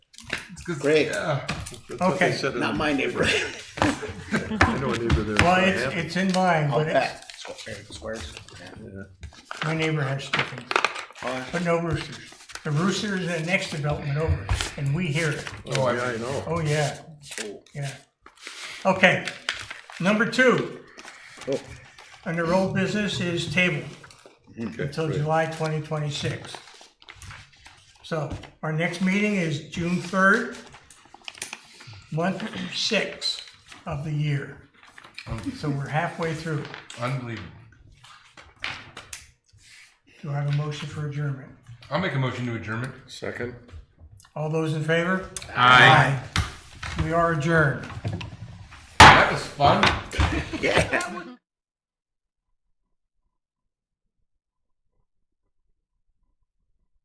'Cause- Great. yeah, That's what they Okay. said in- Not my neighborhood. I know a neighbor there. Well, it's, it's in line, Out but it's, back. Square- Squares. my neighbor has chickens, Yeah. but no roosters. The rooster is in the next development over, and we hear it. Oh, yeah, I know. Oh, yeah, yeah. Okay, number two, Oh, under old business is table Okay, until great. July 2026. So our next meeting is June 3rd, month six of the year. Oh. So we're halfway through. Unbelievable. Do I have a motion for adjournment? I'll make a motion to adjournment. Second. All those in favor? Aye. We are adjourned. That was fun. Yeah.